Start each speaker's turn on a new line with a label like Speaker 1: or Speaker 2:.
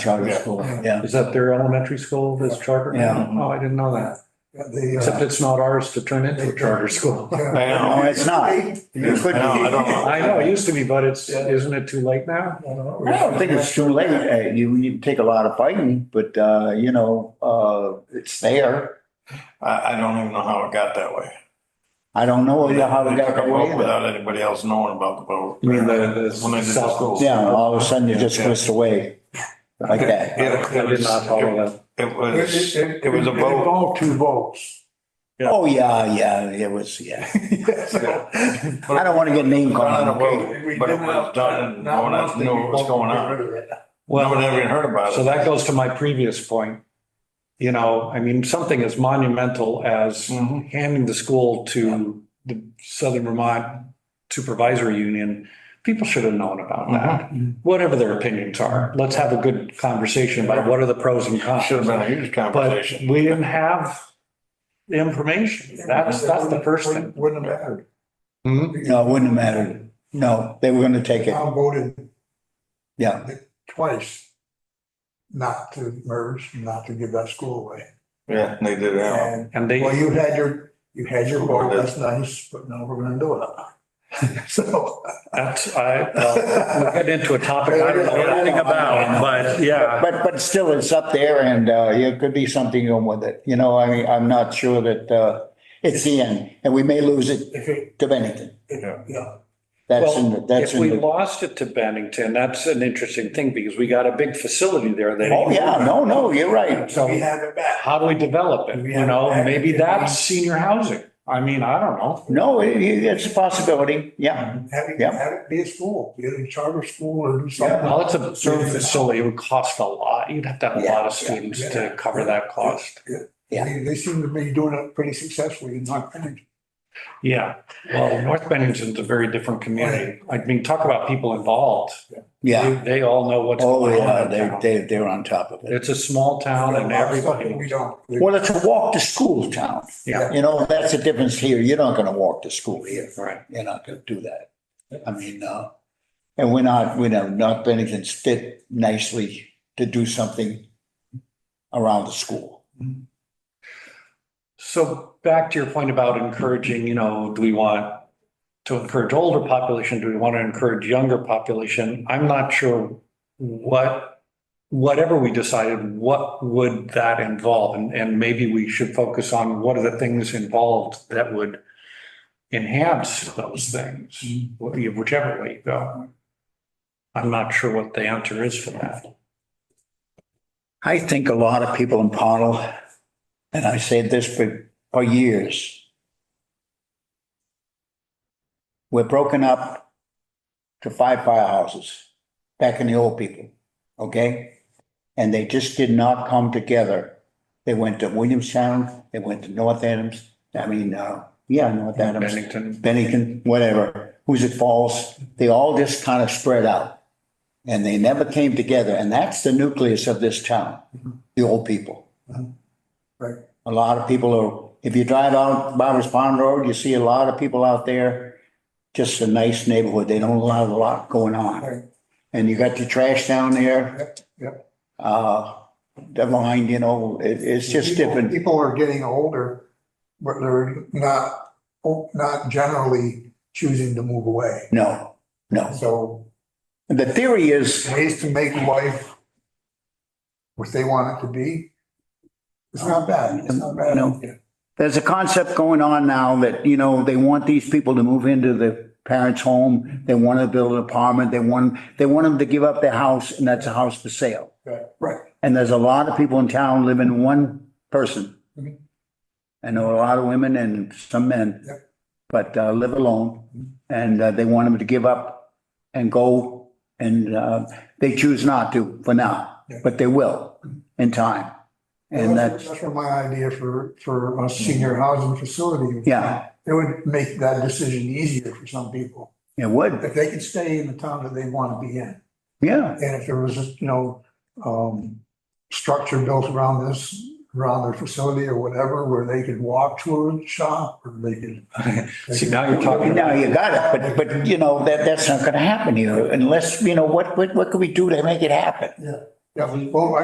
Speaker 1: charter
Speaker 2: Yeah.
Speaker 1: school, yeah.
Speaker 3: Is that their elementary school, this charter?
Speaker 1: Yeah.
Speaker 3: Oh, I didn't know that. Except
Speaker 4: The,
Speaker 3: it's not ours to turn into a charter school.
Speaker 4: uh, yeah.
Speaker 2: I know.
Speaker 1: No, it's not.
Speaker 4: I
Speaker 1: You
Speaker 2: I
Speaker 1: couldn't-
Speaker 2: know, I don't know.
Speaker 3: I know, it used to be, but it's, isn't it too late now?
Speaker 4: don't know.
Speaker 1: I don't think it's too late. Uh, You, you take a lot of fighting, but, uh, you know, uh, it's there.
Speaker 2: I, I don't even know how it got that way.
Speaker 1: I don't know how it
Speaker 2: They
Speaker 1: got
Speaker 2: took a
Speaker 1: that
Speaker 2: vote
Speaker 1: way. either.
Speaker 2: Without anybody else knowing about the vote.
Speaker 3: You mean the- the
Speaker 2: When they did the
Speaker 3: South-
Speaker 2: schools.
Speaker 1: Yeah, all of a sudden it just
Speaker 2: Yeah.
Speaker 1: goes away like that.
Speaker 2: It-
Speaker 3: I did not follow that.
Speaker 2: It
Speaker 4: It-
Speaker 2: was,
Speaker 4: It
Speaker 2: it was a vote.
Speaker 4: involved two votes.
Speaker 1: Oh, yeah, yeah, it was, yeah. I
Speaker 2: I
Speaker 1: don't want to get name
Speaker 2: Done
Speaker 1: called.
Speaker 2: on a vote, but it was done, no one else knew what was going on. No one ever even heard about it.
Speaker 3: So that goes to my previous point. You know, I mean, something as monumental as
Speaker 2: Mhm.
Speaker 3: handing the school to the Southern Vermont Supervisory Union, people should have known about that. Whatever their opinions are, let's have a good conversation about what are the pros and cons.
Speaker 2: Should have been a huge
Speaker 3: But
Speaker 2: conversation.
Speaker 3: we didn't have the information. That's, that's the first thing.
Speaker 4: Wouldn't have mattered.
Speaker 3: Hmm?
Speaker 1: No, it wouldn't have mattered. No, they were going to take it.
Speaker 4: Tom voted
Speaker 1: Yeah,
Speaker 4: twice not to merge, not to give that school away.
Speaker 2: Yeah, they did that.
Speaker 4: And,
Speaker 3: And they,
Speaker 4: well, you had your, you had your vote, that's nice, but now we're gonna do it. So.
Speaker 3: that's, I, well, we're getting into a topic I don't know anything about, but yeah.
Speaker 1: but, but still it's up there and, uh, it could be something going with it. You know, I mean, I'm not sure that, uh, it's the end and we may lose it
Speaker 4: If it,
Speaker 1: to Bennington.
Speaker 4: if, yeah,
Speaker 1: That's in, the
Speaker 3: Well,
Speaker 1: that's
Speaker 3: if
Speaker 1: in.
Speaker 3: we
Speaker 1: the-
Speaker 3: lost it to Bennington, that's an interesting thing because we got a big facility there that.
Speaker 1: Oh, yeah, no, no, you're right.
Speaker 4: so we have it back.
Speaker 3: How do we develop it? You know, maybe that's senior housing. I mean, I don't know.
Speaker 1: No, it- it- it's a possibility. Yeah.
Speaker 4: Have it,
Speaker 1: Yeah.
Speaker 4: have it be a school, be it a charter school or do something.
Speaker 3: Well, it's a certain facility. It would cost a lot. You'd have to have a lot of
Speaker 1: Yeah, yeah,
Speaker 3: students to
Speaker 4: yeah.
Speaker 3: cover that cost.
Speaker 1: Yeah.
Speaker 4: They, they seem to be doing it pretty successfully in North Bennington.
Speaker 3: Yeah, well, North Bennington's a very different community. I mean, talk about people involved.
Speaker 1: Yeah.
Speaker 3: They they all know what's
Speaker 1: Oh,
Speaker 3: going
Speaker 1: yeah,
Speaker 3: on. in
Speaker 1: they,
Speaker 3: town.
Speaker 1: they, they're on top of it.
Speaker 3: It's a small town and
Speaker 4: We
Speaker 3: everybody,
Speaker 4: don't.
Speaker 1: Well, it's a walk to school town.
Speaker 3: yeah,
Speaker 1: You know, that's the difference here. You're not gonna walk to school here.
Speaker 3: right.
Speaker 1: You're not gonna do that. I mean, uh, and we're not, we know, North Bennington's fit nicely to do something around the school.
Speaker 3: So back to your point about encouraging, you know, do we want to encourage older population? Do we want to encourage younger population? I'm not sure what, whatever we decided, what would that involve? And, and maybe we should focus on what are the things involved that would enhance those things, whichever way you go. I'm not sure what the answer is for that.
Speaker 1: I think a lot of people in Pownell, and I said this for, for years, we're broken up to five firehouses back in the old people, okay? And they just did not come together. They went to Williamstown, they went to North Adams, I mean, uh, yeah, North Adams.
Speaker 3: Bennington,
Speaker 1: Bennington, whatever, Hoosick Falls, they all just kind of spread out. And they never came together, and that's the nucleus of this town, the old people.
Speaker 4: Right.
Speaker 1: A lot of people are, if you drive out Barbers Pond Road, you see a lot of people out there, just a nice neighborhood, they don't allow a lot going
Speaker 4: Right.
Speaker 1: on. And you got the trash down there,
Speaker 4: Yep, yep.
Speaker 1: uh, the line, you know, it, it's just
Speaker 4: People-
Speaker 1: different.
Speaker 4: People are getting older, but they're not, not generally choosing to move away.
Speaker 1: No, no.
Speaker 4: So
Speaker 1: The theory is,
Speaker 4: ways to make life what they want it to be, it's not bad, it's not bad.
Speaker 1: No. There's a concept going on now that, you know, they want these people to move into the parents' home. They want to build an apartment. They want, they want them to give up their house and that's a house for sale.
Speaker 4: Right, Right,
Speaker 1: And there's a lot of people in town living in one person.
Speaker 4: Mhm.
Speaker 1: I know a lot of women and some men,
Speaker 4: Yep.
Speaker 1: but uh, live alone. And uh, they want them to give up and go and uh, they choose not to for now,
Speaker 4: Yeah.
Speaker 1: but they will in time. And that's,
Speaker 4: That's where my idea for, for a senior
Speaker 3: Mm-hmm.
Speaker 4: housing facility.
Speaker 1: yeah,
Speaker 4: It would make that decision easier for some people,
Speaker 1: it would.
Speaker 4: if they could stay in the town that they want to be in.
Speaker 1: Yeah,
Speaker 4: And if there was, you know, um, structure built around this, around their facility or whatever, where they could walk to a shop or they could.
Speaker 3: see, now you're talking.
Speaker 1: now you got it, but, but you know, that, that's not gonna happen here unless, you know, what, what, what can we do to make it happen?
Speaker 4: Yeah. Yeah, well,